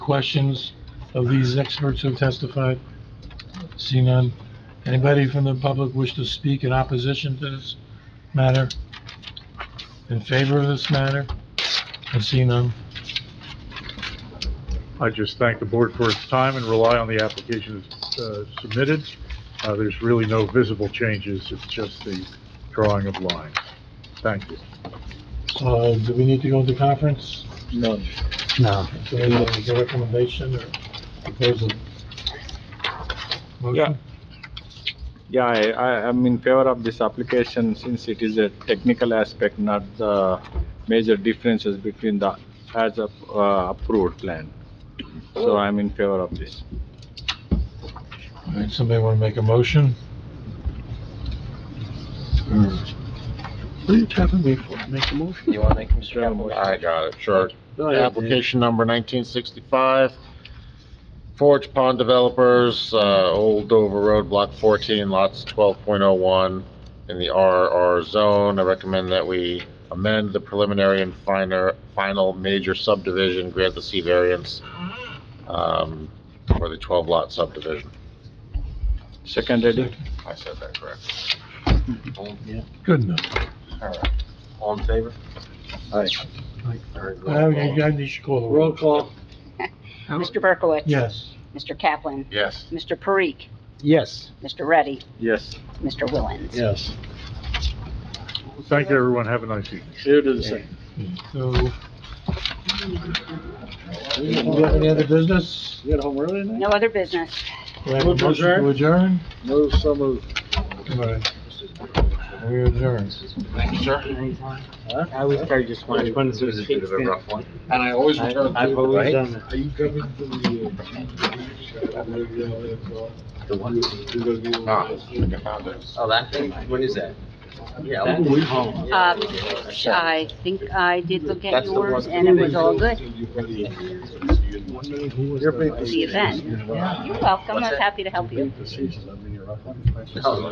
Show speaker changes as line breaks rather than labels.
questions of these experts who testified? See none. Anybody from the public wish to speak in opposition to this matter? In favor of this matter? I see none.
I just thank the board for its time and rely on the application uh, submitted. Uh, There's really no visible changes, it's just the drawing of lines. Thank you.
Uh, do we need to go into conference?
None.
No.
Do we need a recommendation or proposal? Motion?
Yeah. Yeah, I, I am in favor of this application since it is a technical aspect, not the major differences between the as of, uh, approved plan. So I'm in favor of this.
All right, somebody want to make a motion?
What are you tapping me for? Make a motion?
You want to make Mr.
Sure,
Campbell?
motion.
I got it, sure.
No,
Oh,
I don't.
Application number 1965, Forge Pond Developers, uh, Old Dover Road, Block 14, lots 12.01, in the RR zone. I recommend that we amend the preliminary and finer, final major subdivision, grant the C variance um, for the 12-lot subdivision.
Second reading?
I said that correct.
Good enough.
All in favor?
Aye.
Now, you guys need to call the roll.
call.
Mr. Berkowitz.
Yes.
Mr. Kaplan.
Yes.
Mr. Parikh.
Yes.
Mr. Reddy.
Yes.
Mr. Willens.
Yes.
Thank you, everyone, have a nice evening.
Here to the second.
So, do we have any other business?
You got home early tonight?
No other business.
Do I have a
Move to
motion to adjourn?
No, so moved.
All right. We adjourn.
Thank you, sir.
I always try just one. Which one is a bit of a rough one?
And I always
I've
return.
I've always done that.
Are you coming to uh, the...
The one.
Ah, I think I found it.
Oh, that thing? What is Ah. that? Yeah.
That-
we home.
Uh, I think I did look at
That's the
yours
one.
and it was all good.
Your paper.
The event. You're welcome. I was happy to help you.
Procedures, I mean, you're up on-
No,